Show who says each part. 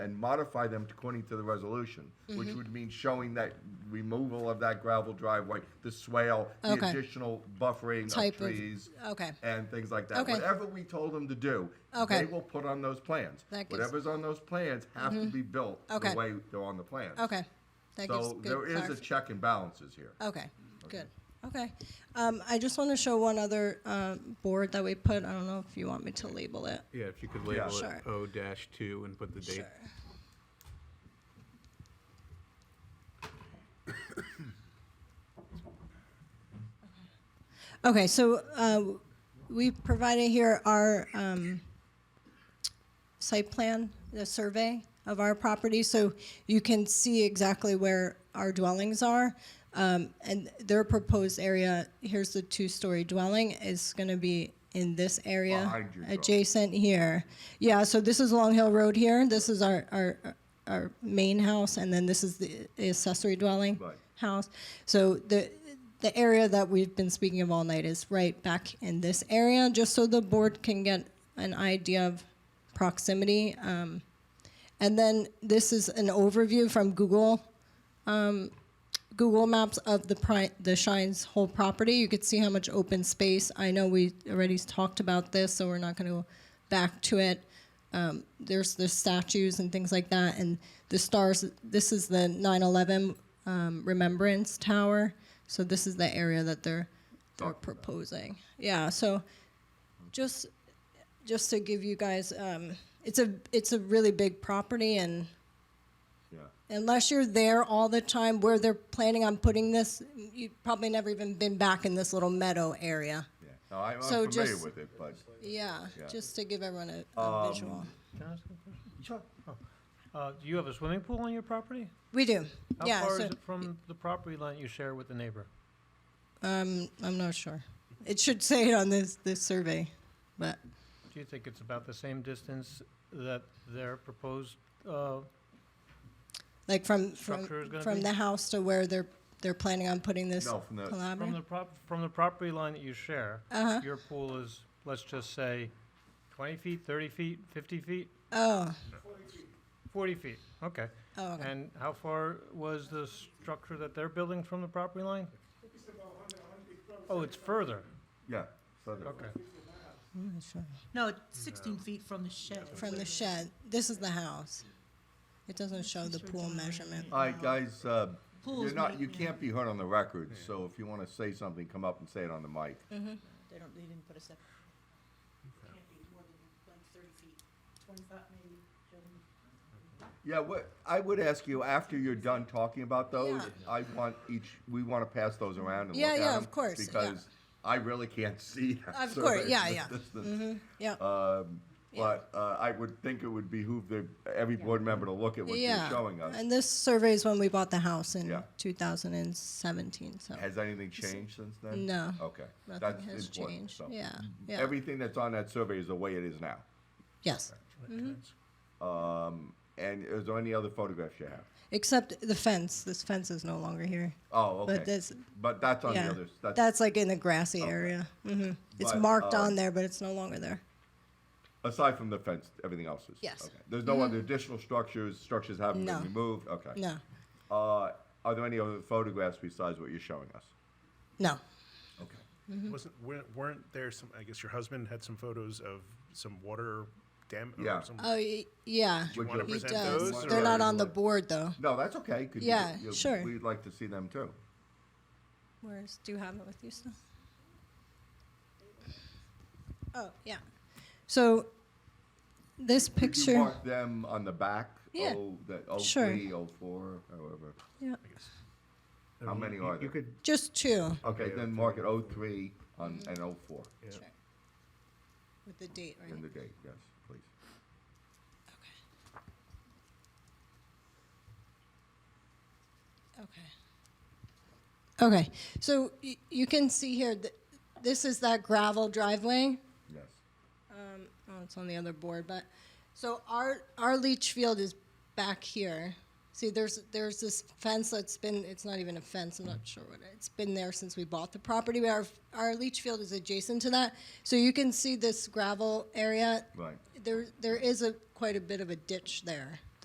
Speaker 1: and modify them according to the resolution,
Speaker 2: Mm-hmm.
Speaker 1: which would mean showing that removal of that gravel driveway, the swale, the
Speaker 2: Okay.
Speaker 1: additional buffering
Speaker 2: Type
Speaker 1: of
Speaker 2: of-
Speaker 1: trees.
Speaker 2: okay.
Speaker 1: And things like that.
Speaker 2: Okay.
Speaker 1: Whatever we told them to do,
Speaker 2: Okay.
Speaker 1: they will put on those plans.
Speaker 2: That gives- Mm-hmm.
Speaker 1: Whatever's on those plans have to be built the
Speaker 2: Okay.
Speaker 1: way they're on the plans.
Speaker 2: Okay. That gives
Speaker 1: So
Speaker 2: good
Speaker 1: there is a
Speaker 2: clarif- Uh,
Speaker 1: check and balances here.
Speaker 2: Okay, good. Okay. Um, I just want to show one other uh, board that we put. I don't know if you want me to label it.
Speaker 3: Yeah, if you could label
Speaker 2: Sure.
Speaker 3: it O dash two and put the date.
Speaker 2: Sure. Okay, so uh, we provided here our um, site plan, the survey of our property, so you can see exactly where our dwellings are. Um, And their proposed area, here's the two-story dwelling, is going to be in this area.
Speaker 1: Behind your dwelling.
Speaker 2: adjacent adjacent here. Yeah, so this is Long Hill Road here. This is our, our, our main house, and then this is the accessory dwelling
Speaker 1: Right.
Speaker 2: house. So the, the area that we've been speaking of all night is right back in this area, just so the board can get an idea of proximity. Um, and then this is an overview from Google Google Maps of the pri- the Shines whole property. You could see how much open space. I know we already talked about this, so we're not going to go back to it. Um, there's the statues and things like that, and the stars. This is the 9/11 um, Remembrance Tower. So this is the area that they're they're proposing. Yeah. So just just to give you guys, um, it's a it's a really big property and
Speaker 1: Yeah.
Speaker 2: unless you're there all the time where they're planning on putting this, you've probably never even been back in this little meadow area.
Speaker 1: Yeah, no, I- I'm
Speaker 2: So
Speaker 1: familiar
Speaker 2: just-
Speaker 1: with it, but.
Speaker 2: Yeah,
Speaker 1: Yeah.
Speaker 2: just to give everyone a, a
Speaker 4: Um,
Speaker 2: visual.
Speaker 4: Can I ask a question? Uh, do you have a swimming pool on your property?
Speaker 2: We do.
Speaker 4: How
Speaker 2: yeah,
Speaker 4: far
Speaker 2: so
Speaker 4: is it from the property line you share with the neighbor?
Speaker 2: um, I'm not sure. It should say it on this this survey, but
Speaker 4: Do you think it's about the same distance that their proposed, uh,
Speaker 2: like from from
Speaker 4: Structure is gonna
Speaker 2: from
Speaker 4: be- uh,
Speaker 2: the house to where they're they're planning on putting this
Speaker 1: No, from the- from
Speaker 4: from
Speaker 2: collaborative.
Speaker 4: the prop, from the property line that you share?
Speaker 2: Uh-huh.
Speaker 4: Your pool is, let's just say, twenty feet, thirty feet, fifty feet,
Speaker 2: oh,
Speaker 4: forty feet, okay.
Speaker 2: oh, okay.
Speaker 4: And how far was the structure that they're building from the property line? Oh, it's further,
Speaker 1: Yeah. so the-
Speaker 4: okay.
Speaker 2: I'm not sure.
Speaker 5: No, it's 16 feet from the shed.
Speaker 2: From the shed. This is the house. It doesn't show the pool measurement.
Speaker 1: All right, guys, uh, you're
Speaker 5: Pools
Speaker 1: not,
Speaker 5: might-
Speaker 1: you can't be heard on the record, so if you want to say something, come up and say it on the mic.
Speaker 5: They don't, they didn't put a sep. Can't be more than like 30 feet, 25 maybe.
Speaker 1: Yeah, what, I would ask you, after you're done talking about those,
Speaker 2: Yeah.
Speaker 1: I want each, we want to pass those around and look
Speaker 2: Yeah,
Speaker 1: at them.
Speaker 2: yeah, of course, yeah.
Speaker 1: Because I really can't see that.
Speaker 2: Of course,
Speaker 1: survey
Speaker 2: yeah,
Speaker 1: from
Speaker 2: yeah. Mm-hmm,
Speaker 1: this distance.
Speaker 2: Yeah.
Speaker 1: Um, But uh, I would think it would behoove the, every board member to look at what you're showing us.
Speaker 2: And this survey is when we bought the house in
Speaker 1: Yeah.
Speaker 2: 2017. So
Speaker 1: Has anything changed since then?
Speaker 2: No.
Speaker 1: Okay.
Speaker 2: nothing
Speaker 1: that's
Speaker 2: has
Speaker 1: important,
Speaker 2: changed.
Speaker 1: so. Mm-hmm.
Speaker 2: Yeah. Yeah.
Speaker 1: Everything that's on that survey is the way it is now.
Speaker 2: yes. Mm-hmm.
Speaker 1: Um, and is there any other photographs you have?
Speaker 2: Except the fence. This fence is no longer here.
Speaker 1: Oh, okay.
Speaker 2: But this,
Speaker 1: But that's on
Speaker 2: yeah,
Speaker 1: the other, that's,
Speaker 2: that's like in the grassy area. hmm It's
Speaker 1: But,
Speaker 2: marked
Speaker 1: um,
Speaker 2: on there, but it's no longer there.
Speaker 1: aside from the fence, everything else is?
Speaker 2: Yes. Mm-hmm.
Speaker 1: okay. There's no other additional structures, structures haven't been
Speaker 2: No.
Speaker 1: removed, okay.
Speaker 2: No,
Speaker 1: Uh, are there any other photographs besides what you're showing us?
Speaker 2: no.
Speaker 6: Okay. Wasn't, weren't, weren't there some, I guess your husband had some photos of some water dam? or
Speaker 1: Yeah.
Speaker 6: some-
Speaker 2: Oh, y- yeah.
Speaker 1: Would
Speaker 6: wanna
Speaker 2: He
Speaker 1: you-
Speaker 6: present
Speaker 2: does.
Speaker 6: those,
Speaker 2: They're
Speaker 6: or-
Speaker 2: not on the board though.
Speaker 1: No, that's okay. Could you-
Speaker 2: Yeah,
Speaker 1: you-
Speaker 2: sure.
Speaker 1: We'd like to see them too.
Speaker 2: Where's, do you have it with you still? Oh, yeah. So this
Speaker 1: Could you
Speaker 2: picture.
Speaker 1: mark them on the back?
Speaker 2: Yeah,
Speaker 1: Oh, that,
Speaker 2: sure.
Speaker 1: 03, 04, however.
Speaker 2: Yeah.
Speaker 1: How many are
Speaker 3: You
Speaker 1: there?
Speaker 3: could,
Speaker 2: Just two
Speaker 1: Okay,
Speaker 3: Yeah,
Speaker 1: then mark it 03 on, and 04
Speaker 2: with the date, right?
Speaker 1: in the date, yes, please.
Speaker 2: Okay. Okay. So y- you can see here, th- this is that gravel driveway.
Speaker 1: Yes.
Speaker 2: Oh, it's on the other board, but so our our leach field is back here. See, there's there's this fence that's been it's not even a fence. I'm not sure what it- it's been there since we bought the property. But our our leach field is adjacent to that, so you can see this gravel area.
Speaker 1: Right.
Speaker 2: There there is a quite a bit of a ditch there.